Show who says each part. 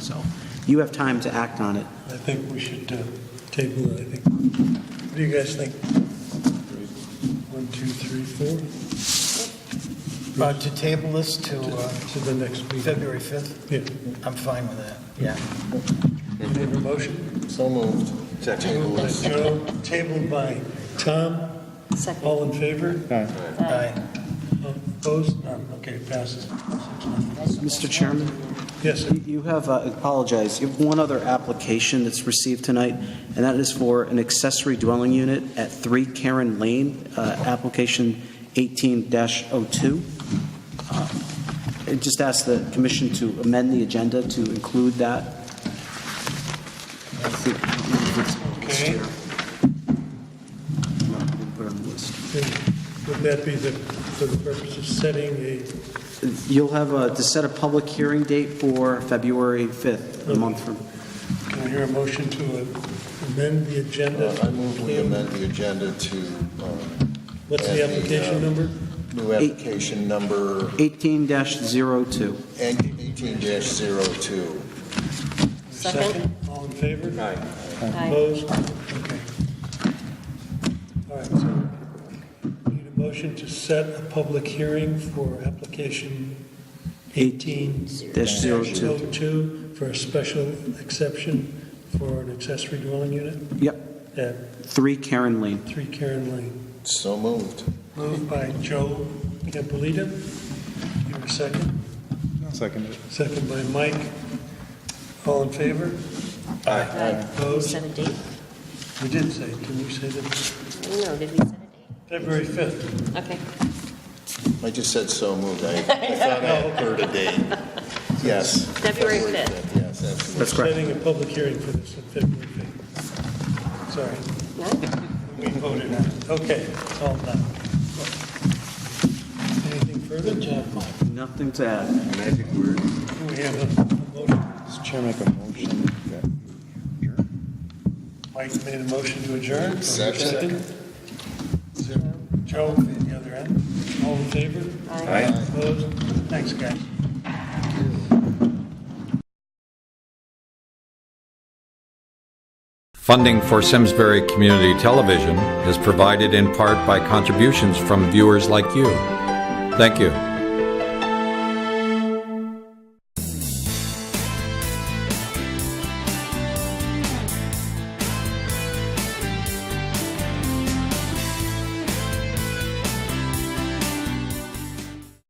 Speaker 1: So you have time to act on it.
Speaker 2: I think we should uh, table it, I think. What do you guys think? One, two, three, four,
Speaker 3: Uh, To table this to uh,
Speaker 2: to the next meeting.
Speaker 3: February 5th,
Speaker 2: Yeah.
Speaker 3: I'm fine with that. Yeah.
Speaker 2: Any other motion?
Speaker 4: So moved. Second.
Speaker 2: Tabled by Joe, tabled by Tom.
Speaker 5: Second.
Speaker 2: All in favor?
Speaker 3: Aye.
Speaker 2: Opposed? None. Okay, passes.
Speaker 1: Mr. Chairman?
Speaker 2: Yes, sir.
Speaker 1: You you have, uh, apologize, you have one other application that's received tonight, and that is for an accessory dwelling unit at 3 Karen Lane, uh, application 18-02. Uh, I Just ask the commission to amend the agenda to include that.
Speaker 2: Okay. Would that be the, for the purpose of setting a,
Speaker 1: You'll have uh, to set a public hearing date for February 5th, a month from,
Speaker 2: can I hear a motion to uh, amend the agenda?
Speaker 4: Uh, I move we amend the agenda to um,
Speaker 2: What's the
Speaker 4: uh,
Speaker 2: application number?
Speaker 4: new application number
Speaker 1: 18-02.
Speaker 4: 18-02.
Speaker 5: Second.
Speaker 2: All in favor?
Speaker 5: Aye.
Speaker 2: Opposed? Okay. All right, so need a motion to set a public hearing for application
Speaker 1: 18-02.
Speaker 2: 18-02 for a special exception for an accessory dwelling unit
Speaker 1: Yep,
Speaker 2: at
Speaker 1: 3 Karen Lane.
Speaker 2: 3 Karen Lane.
Speaker 4: So moved.
Speaker 2: Moved by Joe Campolita. Give a second.
Speaker 6: Second.
Speaker 2: Second by Mike. All in favor?
Speaker 5: Aye. Set a date?
Speaker 2: We did say, can you say that?
Speaker 5: No, did we set a
Speaker 2: February 5th.
Speaker 5: date? Okay.
Speaker 4: I just said so moved. I I thought I had heard a date. Yes.
Speaker 5: February 5th.
Speaker 4: Yes, absolutely.
Speaker 1: That's correct.
Speaker 2: Setting a public hearing for this on February 5th. Sorry,
Speaker 5: No?
Speaker 2: we voted on it. Okay, it's all done. Anything further?
Speaker 1: Nothing to add.
Speaker 2: Do we have a motion?
Speaker 6: Mr. Chair, make a motion that we adjourn.
Speaker 2: Mike made a motion to adjourn. Do we have a
Speaker 4: Second.
Speaker 2: Second. Joe, the other end. All in favor? Aye. Opposed? Thanks, guys.
Speaker 7: Funding for Simsbury Community Television is provided in part by contributions from viewers like you. Thank you.